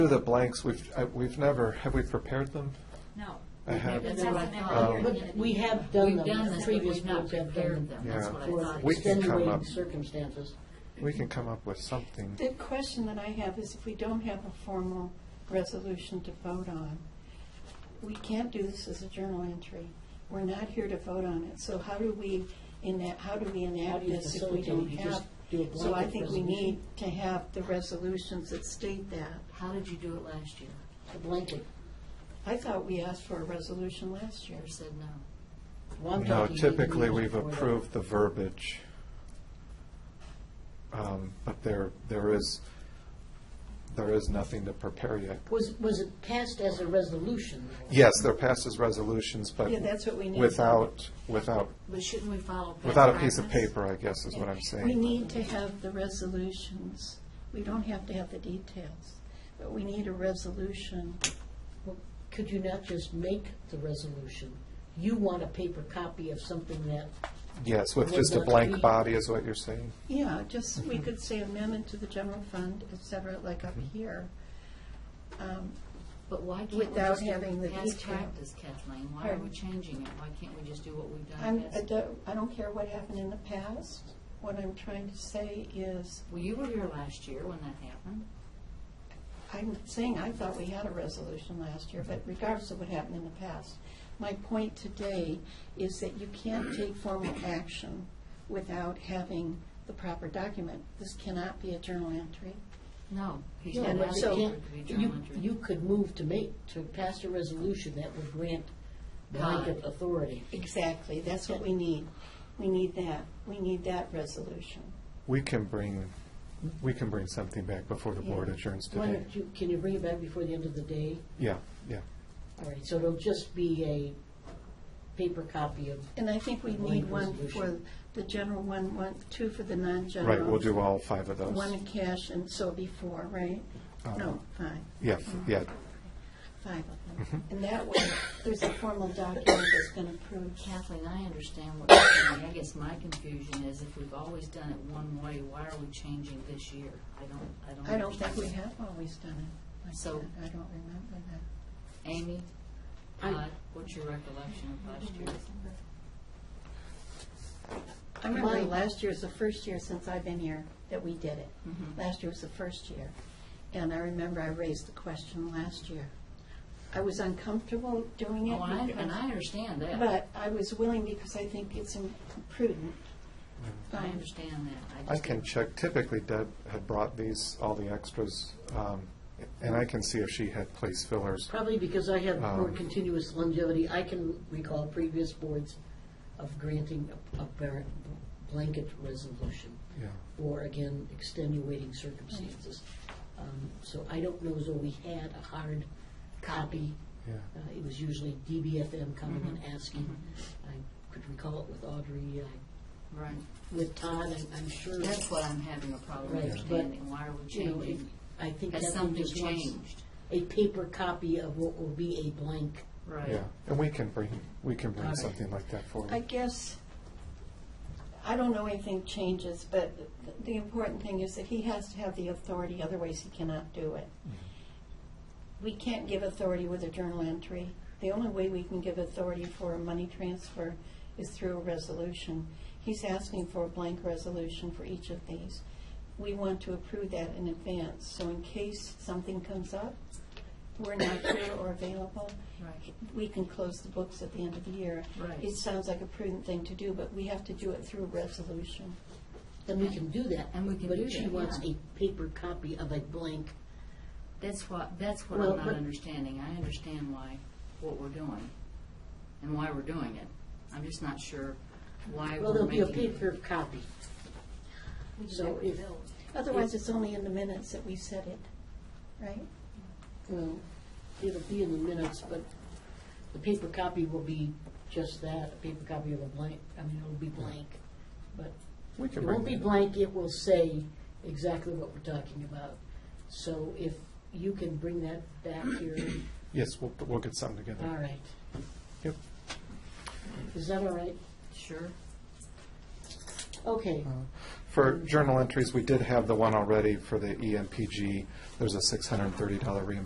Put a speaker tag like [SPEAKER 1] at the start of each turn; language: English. [SPEAKER 1] through the blanks, we've, I- we've never, have we prepared them?
[SPEAKER 2] No.
[SPEAKER 1] I have-
[SPEAKER 2] It hasn't been
[SPEAKER 1] Um,
[SPEAKER 2] here.
[SPEAKER 1] But
[SPEAKER 3] we have done them.
[SPEAKER 2] We've done this, but
[SPEAKER 3] Previous
[SPEAKER 2] we've not
[SPEAKER 3] boards have
[SPEAKER 2] prepared
[SPEAKER 3] done
[SPEAKER 2] them, that's
[SPEAKER 1] Yeah.
[SPEAKER 2] what I
[SPEAKER 3] for
[SPEAKER 2] thought.
[SPEAKER 1] We can come
[SPEAKER 3] extenuating
[SPEAKER 1] up-
[SPEAKER 3] circumstances.
[SPEAKER 1] We can come up with something.
[SPEAKER 4] The question that I have is if we don't have a formal resolution to vote on, we can't do this as a journal entry. We're not here to vote on it, so how do we, in that, how do we
[SPEAKER 3] How do
[SPEAKER 4] enact
[SPEAKER 3] you
[SPEAKER 4] this if we
[SPEAKER 3] facilitate?
[SPEAKER 4] don't
[SPEAKER 3] You
[SPEAKER 4] have?
[SPEAKER 3] just do a
[SPEAKER 4] So I
[SPEAKER 3] blanket
[SPEAKER 4] think we
[SPEAKER 3] resolution?
[SPEAKER 4] need to have the resolutions that state that.
[SPEAKER 2] How did you do it last year?
[SPEAKER 3] A blanket.
[SPEAKER 4] I thought we asked for a resolution last year.
[SPEAKER 2] You said no.
[SPEAKER 3] Well, I'm
[SPEAKER 1] No,
[SPEAKER 3] talking eight
[SPEAKER 1] typically,
[SPEAKER 3] years
[SPEAKER 1] we've
[SPEAKER 3] before that.
[SPEAKER 1] approved the verbiage. Um, But there, there is, there is nothing to prepare yet.
[SPEAKER 3] Was, was it passed as a resolution? though?
[SPEAKER 1] Yes, there passes resolutions, but
[SPEAKER 4] Yeah, that's what we need.
[SPEAKER 1] without, without,
[SPEAKER 2] But shouldn't we follow best
[SPEAKER 1] without a piece of
[SPEAKER 2] practice?
[SPEAKER 1] paper, I guess, is what I'm
[SPEAKER 4] We
[SPEAKER 1] saying.
[SPEAKER 4] need to have the resolutions. We don't have to have the details, but we need a resolution.
[SPEAKER 3] Well, Could you not just make the resolution? You want a paper copy of something that,
[SPEAKER 1] Yes, with
[SPEAKER 3] Would
[SPEAKER 1] just a
[SPEAKER 3] not be-
[SPEAKER 1] blank body is what you're saying.
[SPEAKER 4] Yeah, just, we could say amendment to the general fund, et cetera, like up here. Um,
[SPEAKER 2] But why can't we
[SPEAKER 4] Without
[SPEAKER 2] just
[SPEAKER 4] having
[SPEAKER 2] do
[SPEAKER 4] the
[SPEAKER 2] past
[SPEAKER 4] detail.
[SPEAKER 2] practice, Kathleen? Why are
[SPEAKER 4] Pardon?
[SPEAKER 2] we changing it? Why can't we just do what we've done?
[SPEAKER 4] I'm, I
[SPEAKER 2] past-
[SPEAKER 4] don't, I don't care what happened in the past. What I'm trying to say is,
[SPEAKER 2] Well, you were here last year when that happened.
[SPEAKER 4] I'm saying I thought we had a resolution last year, but regardless of what happened in the past, my point today is that you can't take formal action without having the proper document. This cannot be a journal entry.
[SPEAKER 2] No. he's
[SPEAKER 3] No,
[SPEAKER 2] not
[SPEAKER 3] but
[SPEAKER 2] asking
[SPEAKER 3] you
[SPEAKER 2] for it to be
[SPEAKER 3] can't,
[SPEAKER 2] journal
[SPEAKER 3] you,
[SPEAKER 2] entry.
[SPEAKER 3] you could move to make, to pass a resolution that would grant blanket authority.
[SPEAKER 4] Exactly, that's what we need. We need that, we need that resolution.
[SPEAKER 1] We can bring, we can bring something back before the board adjourns
[SPEAKER 3] Why
[SPEAKER 1] today.
[SPEAKER 3] don't you, can you bring it back before the end of the day?
[SPEAKER 1] Yeah, yeah.
[SPEAKER 3] All right, so it'll just be a paper copy of,
[SPEAKER 4] And I think we
[SPEAKER 3] Blank
[SPEAKER 4] need one for
[SPEAKER 3] resolution.
[SPEAKER 4] the general one, one, two for the non-general.
[SPEAKER 1] Right, we'll do all five of those.
[SPEAKER 4] One in cash and so before, right? No, five.
[SPEAKER 1] Yeah, f- yeah,
[SPEAKER 4] five of them.
[SPEAKER 1] Mm-hmm.
[SPEAKER 4] And that way, there's a formal document that's been approved.
[SPEAKER 2] Kathleen, I understand what you're saying. I guess my confusion is if we've always done it one way, why are we changing this year? I don't, I don't.
[SPEAKER 4] I don't think we
[SPEAKER 2] understand.
[SPEAKER 4] have always done it. like
[SPEAKER 2] So-
[SPEAKER 4] that. I don't remember that.
[SPEAKER 2] Amy,
[SPEAKER 3] I-
[SPEAKER 2] Todd, what's your recollection of last year?
[SPEAKER 4] I remember
[SPEAKER 3] Mine-
[SPEAKER 4] last year was the first year since I've been here that we did it.
[SPEAKER 2] Mm-hmm.
[SPEAKER 4] Last year was the first year. And I remember I raised the question last year. I was uncomfortable doing it.
[SPEAKER 2] Oh, I,
[SPEAKER 4] because-
[SPEAKER 2] and I understand that.
[SPEAKER 4] But I was willing because I think it's prudent.
[SPEAKER 2] I understand that.
[SPEAKER 1] I
[SPEAKER 2] just-
[SPEAKER 1] can check. Typically Deb had brought these, all the extras, um, and I can see if she had place fillers.
[SPEAKER 3] probably because I have more
[SPEAKER 1] Um,
[SPEAKER 3] continuous longevity, I can recall previous boards of granting a- a bar- blanket resolution.
[SPEAKER 1] Yeah.
[SPEAKER 3] Or again, extenuating circumstances. Um, So I don't know as though we had a hard copy.
[SPEAKER 1] Yeah.
[SPEAKER 3] Uh, It was usually DBFM coming and
[SPEAKER 2] Mm-hmm.
[SPEAKER 3] asking. I could recall it with Audrey, I-
[SPEAKER 2] Right.
[SPEAKER 3] with Todd, I'm- I'm sure.
[SPEAKER 2] That's what I'm having a problem
[SPEAKER 3] Right, but,
[SPEAKER 2] understanding. Why are we
[SPEAKER 3] you know,
[SPEAKER 2] changing?
[SPEAKER 3] I think
[SPEAKER 2] Has
[SPEAKER 3] that
[SPEAKER 2] something
[SPEAKER 3] just wants
[SPEAKER 2] changed?
[SPEAKER 3] A paper copy of what will be a blank.
[SPEAKER 1] Yeah,
[SPEAKER 2] Right.
[SPEAKER 1] and we can bring, we can bring
[SPEAKER 3] Alright.
[SPEAKER 1] something like that
[SPEAKER 4] I
[SPEAKER 1] forward.
[SPEAKER 4] guess, I don't know anything changes, but th- the important thing is that he has to have the authority, otherwise he cannot do it. We can't give authority with a journal entry. The only way we can give authority for a money transfer is through a resolution. He's asking for a blank resolution for each of these. We want to approve that in advance, so in case something comes up, we're not here or available,
[SPEAKER 2] Right.
[SPEAKER 4] we can close the books at the end of the year.
[SPEAKER 2] Right.
[SPEAKER 4] It sounds like a prudent thing to do, but we have to do it through resolution.
[SPEAKER 3] And we can do that.
[SPEAKER 2] And we can do
[SPEAKER 3] But she
[SPEAKER 2] that,
[SPEAKER 3] wants
[SPEAKER 2] yeah.
[SPEAKER 3] a paper copy of a blank.
[SPEAKER 2] That's what, that's what
[SPEAKER 3] Well,
[SPEAKER 2] I'm not
[SPEAKER 3] but-
[SPEAKER 2] understanding. I understand why, what we're doing and why we're doing it. I'm just not sure why
[SPEAKER 3] Well,
[SPEAKER 2] we're
[SPEAKER 3] there'll be a
[SPEAKER 2] making.
[SPEAKER 3] paper copy. So if,
[SPEAKER 4] Otherwise, it's only in the minutes that we said it, right?
[SPEAKER 3] well, it'll be in the minutes, but the paper copy will be just that, a paper copy of a blank. I mean, it'll be blank. But
[SPEAKER 1] We
[SPEAKER 3] It
[SPEAKER 1] can bring
[SPEAKER 3] won't be
[SPEAKER 1] that.
[SPEAKER 3] blank, it will say exactly what we're talking about. So if you can bring that back here,
[SPEAKER 1] Yes, we'll, we'll get something
[SPEAKER 3] all
[SPEAKER 1] together.
[SPEAKER 3] right.
[SPEAKER 1] Yep.
[SPEAKER 3] Is that all right?
[SPEAKER 2] Sure.
[SPEAKER 3] Okay,
[SPEAKER 1] Uh, For E journal entries, we did have the one already for the EMPG. There's a $630 reimbursement